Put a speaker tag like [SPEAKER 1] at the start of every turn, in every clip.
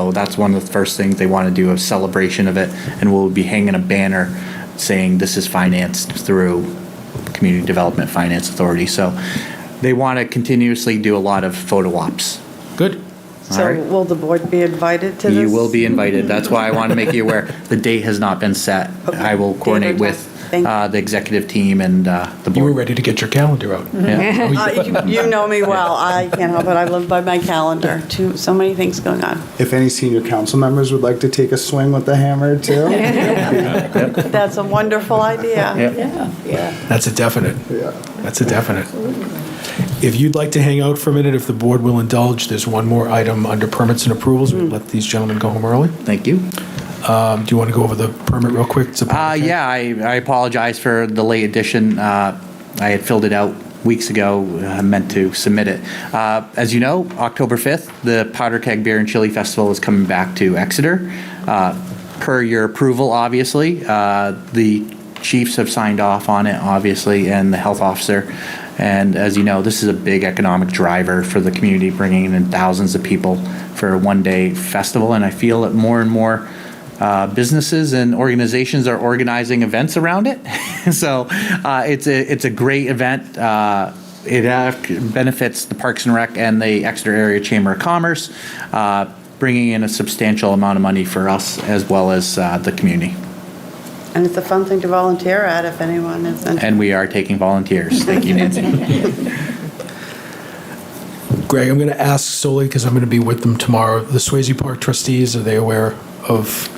[SPEAKER 1] So that's one of the first things they want to do, a celebration of it, and we'll be hanging a banner saying this is financed through Community Development Finance Authority. So they want to continuously do a lot of photo ops.
[SPEAKER 2] Good.
[SPEAKER 1] All
[SPEAKER 3] So
[SPEAKER 1] right.
[SPEAKER 3] will the board be invited to this?
[SPEAKER 1] You will be invited. That's why I want to make you aware. The date has not been set. I will coordinate
[SPEAKER 3] Date or
[SPEAKER 1] with
[SPEAKER 3] time. Thank you.
[SPEAKER 1] uh, the executive team and uh, the
[SPEAKER 2] You were
[SPEAKER 1] board.
[SPEAKER 2] ready to get your calendar out.
[SPEAKER 1] Yeah.
[SPEAKER 2] Oh,
[SPEAKER 3] Uh,
[SPEAKER 2] you-
[SPEAKER 3] You you know me well. I can't help it. I live by my calendar. Too, so many things going on.
[SPEAKER 4] If any senior council members would like to take a swing with the hammer too.
[SPEAKER 3] That's a wonderful idea.
[SPEAKER 1] Yep.
[SPEAKER 2] That's a definite.
[SPEAKER 4] Yeah.
[SPEAKER 2] That's a definite. If you'd like to hang out for a minute, if the board will indulge, there's one more item under permits and approvals. We let these gentlemen go home early.
[SPEAKER 1] Thank you.
[SPEAKER 2] Um, Do you want to go over the permit real quick? It's a-
[SPEAKER 1] Uh, yeah, I, I apologize for the late addition. Uh, I had filled it out weeks ago. I meant to submit it. Uh, as you know, October 5th, the Powder Keg Beer and Chili Festival is coming back to Exeter. Uh, per your approval, obviously, uh, the chiefs have signed off on it, obviously, and the health officer. And as you know, this is a big economic driver for the community, bringing in thousands of people for a one day festival. And I feel that more and more uh, businesses and organizations are organizing events around it. so uh, it's a it's a great event. Uh, it uh, benefits the Parks and Rec and the Exeter Area Chamber of Commerce, uh, bringing in a substantial amount of money for us as well as uh, the community.
[SPEAKER 3] And it's a fun thing to volunteer at if anyone is interested.
[SPEAKER 1] And we are taking volunteers. Thank you, Nancy.
[SPEAKER 2] Greg, I'm going to ask solely because I'm going to be with them tomorrow. The Swayze Park trustees, are they aware of?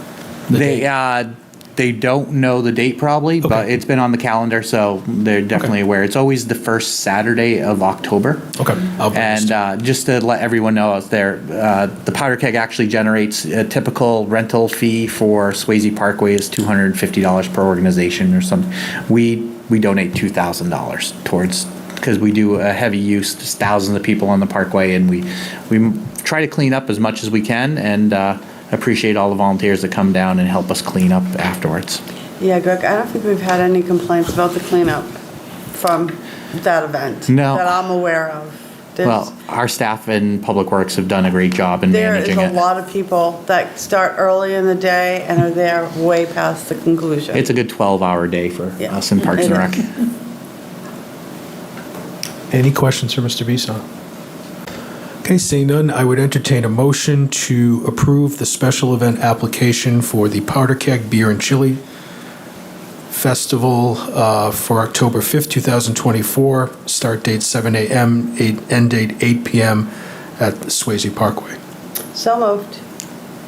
[SPEAKER 2] the
[SPEAKER 1] they
[SPEAKER 2] date?
[SPEAKER 1] uh, they don't know the date probably, but
[SPEAKER 2] Okay.
[SPEAKER 1] it's been on the calendar, so they're definitely aware. It's always the first Saturday of October.
[SPEAKER 2] Okay. I'll be
[SPEAKER 1] And
[SPEAKER 2] honest.
[SPEAKER 1] uh, just to let everyone know out there, uh, the powder keg actually generates a typical rental fee for Swayze Parkway is two hundred and fifty dollars per organization or something. We we donate two thousand dollars towards because we do a heavy use. There's thousands of people on the parkway, and we we try to clean up as much as we can and. Uh, Appreciate all the volunteers that come down and help us clean up afterwards.
[SPEAKER 3] Yeah, Greg, I don't think we've had any complaints about the cleanup from that event.
[SPEAKER 1] No.
[SPEAKER 3] That I'm aware of. There's-
[SPEAKER 1] Well, our staff and Public Works have done a great job in
[SPEAKER 3] There is
[SPEAKER 1] managing
[SPEAKER 3] a
[SPEAKER 1] it.
[SPEAKER 3] lot of people that start early in the day and are there way past the conclusion.
[SPEAKER 1] It's a good 12-hour day for
[SPEAKER 3] Yeah.
[SPEAKER 1] us in Parks and
[SPEAKER 3] It
[SPEAKER 1] Rec.
[SPEAKER 3] is.
[SPEAKER 2] Any questions for Mr. Bisson? Okay, seeing none, I would entertain a motion to approve the special event application for the Powder Keg Beer and Chili Festival uh, for October 5th, 2024. Start date 7 a.m., eight- end date 8 p.m. at the Swayze Parkway.
[SPEAKER 3] So moved.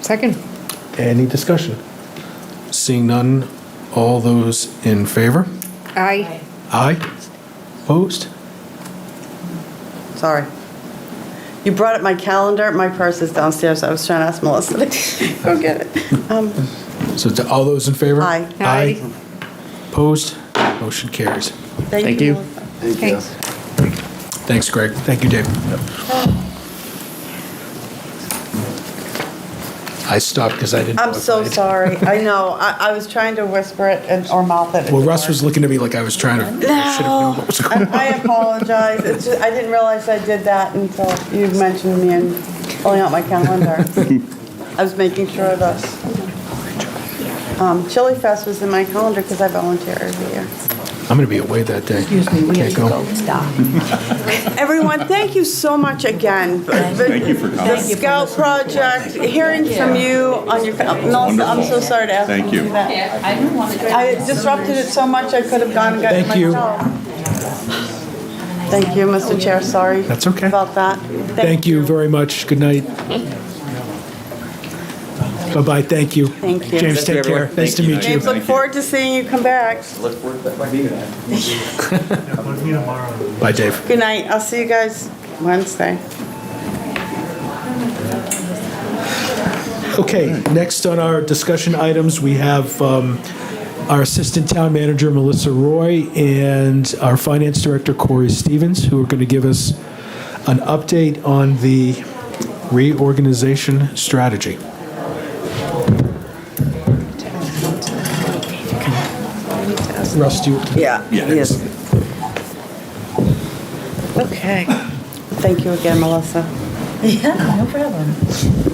[SPEAKER 5] Second.
[SPEAKER 2] Any discussion? Seeing none, all those in favor?
[SPEAKER 5] Aye.
[SPEAKER 2] Aye. Opposed?
[SPEAKER 3] Sorry. You brought up my calendar. My purse is downstairs. I was trying to ask Melissa to go get it. Um,
[SPEAKER 2] So to all those in favor?
[SPEAKER 3] Aye.
[SPEAKER 2] Aye. Opposed? Motion carries.
[SPEAKER 1] Thank you.
[SPEAKER 3] Melissa.
[SPEAKER 5] Thanks.
[SPEAKER 2] Thanks, Greg. Thank you, Dave. I stopped because I didn't. know
[SPEAKER 3] I'm
[SPEAKER 2] if
[SPEAKER 3] so
[SPEAKER 2] I'd-
[SPEAKER 3] sorry. I know. I, I was trying to whisper it and, or mouth it.
[SPEAKER 2] Well, Russ was looking at me like I was trying to. I should have known what was going
[SPEAKER 3] I I apologize. It's just, I didn't realize I did that until you mentioned me and pulling out my calendar. I was making sure of this. Um, Chili Fest was in my calendar because I volunteer every year.
[SPEAKER 2] I'm going to be away that day. Excuse me, we have
[SPEAKER 3] Everyone, thank you so much again. Thank you for coming. The Scout Project, hearing from you on your, Melissa, I'm so sorry to ask you to do that.
[SPEAKER 6] I didn't want to.
[SPEAKER 3] I disrupted it so much, I could have gone and gotten
[SPEAKER 2] Thank you.
[SPEAKER 3] myself. Thank you, Mr. Chair, sorry.
[SPEAKER 2] That's okay.
[SPEAKER 3] About that.
[SPEAKER 2] Thank you very much. Good night. Bye-bye. Thank you.
[SPEAKER 3] Thank you.
[SPEAKER 2] James, take care. Nice to meet you.
[SPEAKER 3] James, look forward to seeing you come back.
[SPEAKER 2] Bye, Dave.
[SPEAKER 3] Good night, I'll see you guys Wednesday.
[SPEAKER 2] Okay, next on our discussion items, we have um, our Assistant Town Manager, Melissa Roy, and our Finance Director, Corey Stevens, who are going to give us an update on the reorganization strategy. Russ, do you?
[SPEAKER 3] Yeah. Yes. Okay. Thank you again, Melissa.
[SPEAKER 6] Yeah, no problem.